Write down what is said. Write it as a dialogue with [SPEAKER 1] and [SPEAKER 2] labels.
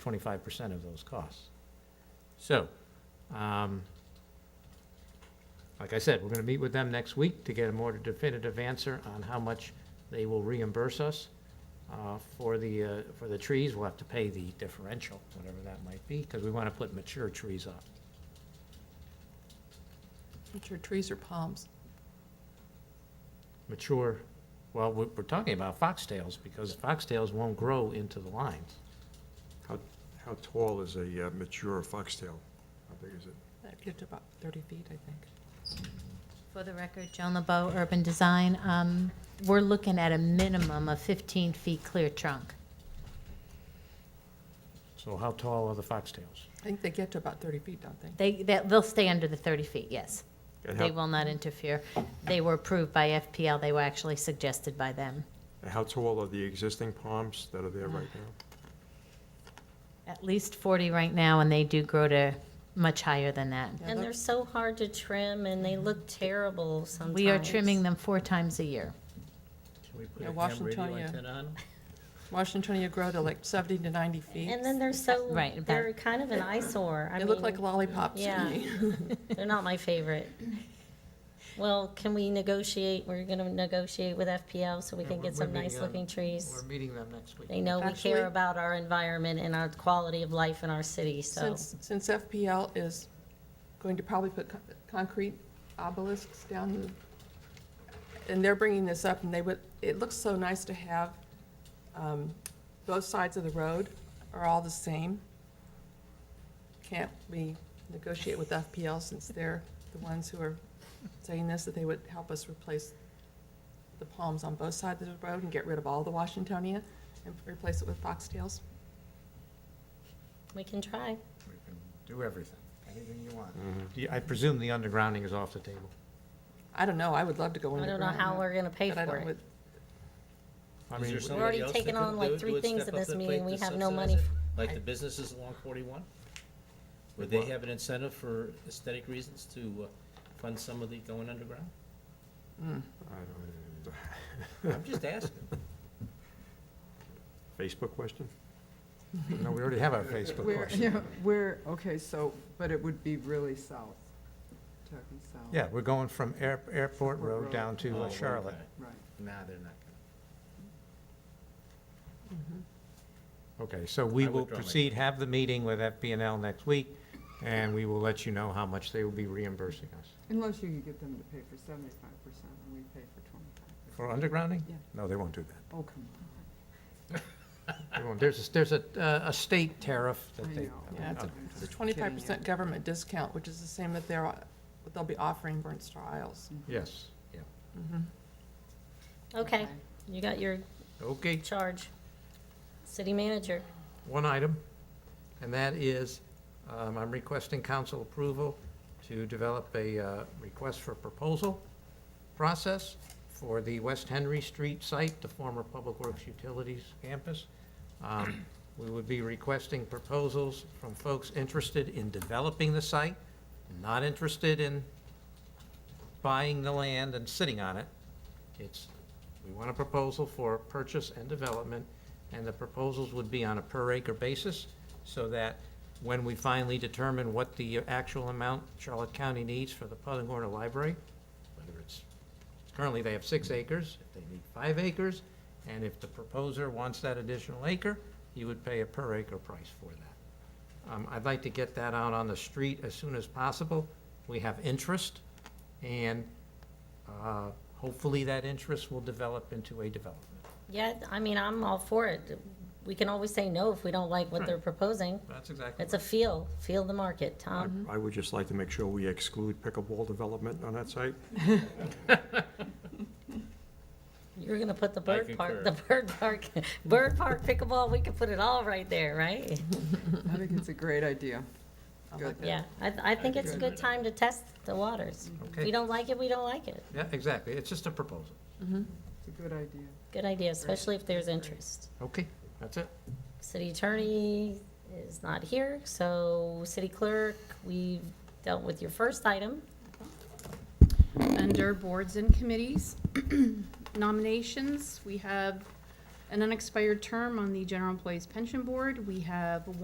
[SPEAKER 1] twenty-five percent of those costs. So, um, like I said, we're gonna meet with them next week to get a more definitive answer on how much they will reimburse us uh, for the, uh, for the trees. We'll have to pay the differential, whatever that might be, because we wanna put mature trees up.
[SPEAKER 2] Which are trees or palms?
[SPEAKER 1] Mature, well, we're, we're talking about foxtails, because foxtails won't grow into the lines.
[SPEAKER 3] How, how tall is a uh, mature foxtail? How big is it?
[SPEAKER 2] That gives about 30 feet, I think.
[SPEAKER 4] For the record, Joan LeBeau, Urban Design, um, we're looking at a minimum of 15 feet clear trunk.
[SPEAKER 1] So how tall are the foxtails?
[SPEAKER 2] I think they get to about 30 feet, don't they?
[SPEAKER 4] They, that- they'll stay under the 30 feet, yes.
[SPEAKER 3] And
[SPEAKER 4] They
[SPEAKER 3] how-
[SPEAKER 4] will not interfere. They were approved by FPL, they were actually suggested by them.
[SPEAKER 3] and How tall are the existing palms that are there right now?
[SPEAKER 4] At least 40 right now, and they do grow to much higher than that.
[SPEAKER 2] Yeah,
[SPEAKER 5] And
[SPEAKER 2] that-
[SPEAKER 5] they're so hard to trim and they look terrible sometimes.
[SPEAKER 4] We are trimming them four times a year.
[SPEAKER 1] Can we
[SPEAKER 2] Yeah, Washingtonia.
[SPEAKER 1] on?
[SPEAKER 2] Washingtonia grow to like 70 to 90 feet.
[SPEAKER 5] And then they're so,
[SPEAKER 4] Right, about-
[SPEAKER 5] they're kind of an eyesore. I
[SPEAKER 2] They look
[SPEAKER 5] mean,
[SPEAKER 2] like lollipops to
[SPEAKER 5] yeah.
[SPEAKER 2] me.
[SPEAKER 5] They're not my favorite. Well, can we negotiate? We're gonna negotiate with FPL so we
[SPEAKER 1] Yeah,
[SPEAKER 5] can
[SPEAKER 1] we're-
[SPEAKER 5] get some
[SPEAKER 1] we're meeting
[SPEAKER 5] nice looking
[SPEAKER 1] on-
[SPEAKER 5] trees.
[SPEAKER 1] We're meeting them next week.
[SPEAKER 5] They know we
[SPEAKER 2] Actually-
[SPEAKER 5] care about our environment and our quality of life in our city, so.
[SPEAKER 2] Since, since FPL is going to probably put con- concrete obelisks down, and they're bringing this up, and they would, it looks so nice to have, um, both sides of the road are all the same. Can't we negotiate with FPL since they're the ones who are saying this, that they would help us replace the palms on both sides of the road and get rid of all the Washingtonia and replace it with foxtails?
[SPEAKER 5] We can try.
[SPEAKER 1] We can do everything, anything you want. Do you- Mm-hmm. I presume the undergrounding is off the table.
[SPEAKER 2] I don't know, I would love to go
[SPEAKER 5] I don't
[SPEAKER 2] underground.
[SPEAKER 5] know how we're gonna pay
[SPEAKER 2] But I
[SPEAKER 5] for
[SPEAKER 2] don't,
[SPEAKER 5] it.
[SPEAKER 2] would-
[SPEAKER 1] I
[SPEAKER 6] Is
[SPEAKER 1] mean,
[SPEAKER 6] there
[SPEAKER 1] we-
[SPEAKER 6] somebody
[SPEAKER 5] already
[SPEAKER 6] else that
[SPEAKER 5] taken
[SPEAKER 6] could
[SPEAKER 5] on, like,
[SPEAKER 6] do it?
[SPEAKER 5] three
[SPEAKER 6] Do it,
[SPEAKER 5] things at
[SPEAKER 6] step up
[SPEAKER 5] this
[SPEAKER 6] the
[SPEAKER 5] meeting.
[SPEAKER 6] plate
[SPEAKER 5] We
[SPEAKER 6] to
[SPEAKER 5] have no
[SPEAKER 6] subsidize
[SPEAKER 5] money
[SPEAKER 6] it?
[SPEAKER 5] f-
[SPEAKER 6] Like the businesses along forty-one? Would they
[SPEAKER 1] What?
[SPEAKER 6] have an incentive for aesthetic reasons to uh, fund some of the going underground?
[SPEAKER 3] I don't-
[SPEAKER 6] I'm just asking.
[SPEAKER 3] Facebook question?
[SPEAKER 1] no, we already have our Facebook
[SPEAKER 7] Where,
[SPEAKER 1] question.
[SPEAKER 7] where, okay, so, but it would be really south, talking south.
[SPEAKER 1] Yeah, we're going from Air- Airport
[SPEAKER 7] Airport
[SPEAKER 1] Road
[SPEAKER 7] Road.
[SPEAKER 1] down to
[SPEAKER 6] Oh,
[SPEAKER 1] uh,
[SPEAKER 6] okay.
[SPEAKER 1] Charlotte.
[SPEAKER 7] Right.
[SPEAKER 6] Nah, they're not
[SPEAKER 1] Okay, so we
[SPEAKER 6] I
[SPEAKER 1] will
[SPEAKER 6] withdraw my-
[SPEAKER 1] proceed, have the meeting with FPNL next week, and we will let you know how much they will be reimbursing us.
[SPEAKER 7] Unless you can get them to pay for seventy-five percent and we pay for twenty-five.
[SPEAKER 1] For undergrounding?
[SPEAKER 7] Yeah.
[SPEAKER 1] No, they won't do that.
[SPEAKER 7] Oh, come on.
[SPEAKER 1] They won't. There's, a- there's a, uh, a state tariff that
[SPEAKER 7] I
[SPEAKER 1] they. uh,
[SPEAKER 7] know.
[SPEAKER 2] Yeah, it's a-
[SPEAKER 1] Okay.
[SPEAKER 2] it's a twenty-five percent government discount, which is the same that they're, that they'll be offering Bernster Isles.
[SPEAKER 1] Yes, yeah.
[SPEAKER 5] Okay, you got your
[SPEAKER 1] Okay.
[SPEAKER 5] charge. City manager.
[SPEAKER 1] one item, and that is, um, I'm requesting council approval to develop a uh, request for proposal process for the West Henry Street site, the former Public Works Utilities campus. Um, We would be requesting proposals from folks interested in developing the site, not interested in buying the land and sitting on it. It's, we want a proposal for purchase and development, and the proposals would be on a per acre basis, so that when we finally determine what the actual amount Charlotte County needs for the Putnam Corner Library, whether it's, currently they have six acres, if they need five acres, and if the proposer wants that additional acre, he would pay a per acre price for that. Um, I'd like to get that out on the street as soon as possible. We have interest, and uh, Hopefully, that interest will develop into a development.
[SPEAKER 5] Yeah, I mean, I'm all for it. We can always say no if we don't like what they're proposing.
[SPEAKER 1] That's exactly.
[SPEAKER 5] It's a feel, feel the market,
[SPEAKER 3] I-
[SPEAKER 5] Tom.
[SPEAKER 3] I would just like to make sure we exclude pickleball development on that site.
[SPEAKER 5] You're gonna put the bird park, the
[SPEAKER 6] concur.
[SPEAKER 5] bird park, bird park pickleball, we could put it all right there, right?
[SPEAKER 7] I think it's a great idea.
[SPEAKER 2] I
[SPEAKER 7] Good.
[SPEAKER 2] like that.
[SPEAKER 5] Yeah, I, I think it's a good time to test the waters.
[SPEAKER 1] Okay.
[SPEAKER 5] We don't like it, we don't like it.
[SPEAKER 1] Yeah, exactly. It's just a proposal.
[SPEAKER 7] It's a good idea.
[SPEAKER 5] Good idea, especially if there's interest.
[SPEAKER 1] Okay, that's it.
[SPEAKER 5] City attorney is not here, so city clerk, we've dealt with your first item.
[SPEAKER 8] Under boards and committees, nominations, we have an unexpired term on the General Employees Pension Board. We have